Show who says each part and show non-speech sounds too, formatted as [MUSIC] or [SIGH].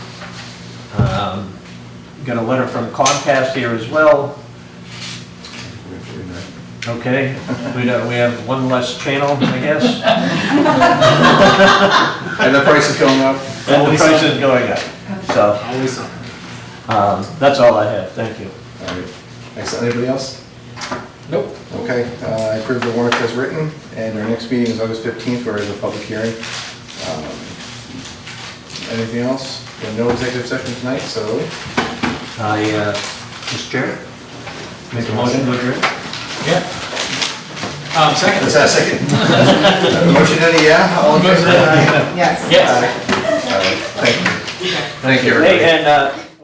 Speaker 1: Um, Got a letter from Comcast here as well. Okay, we don't, we have one less channel, I guess, [LAUGHS]
Speaker 2: And the price is going up?
Speaker 1: and the price is going up, so,
Speaker 2: Always up.
Speaker 1: um, that's all I have, thank you.
Speaker 2: All right, excellent. Anybody else?
Speaker 3: Nope.
Speaker 2: Okay, uh, I approve the warrant as written, and our next meeting is August 15th, where is a public hearing. Um, Anything else? We have No executive session tonight, so
Speaker 1: I, uh, Mr. Chair? Make a motion to adjourn?
Speaker 3: Yeah. Um, second.
Speaker 2: let's have a second. [LAUGHS] Motion any, yeah? All in favor?
Speaker 4: Yes.
Speaker 3: Yes.
Speaker 2: Aye. All right, Thank you. Thank you,
Speaker 1: Hey,
Speaker 2: everybody.
Speaker 1: and, uh,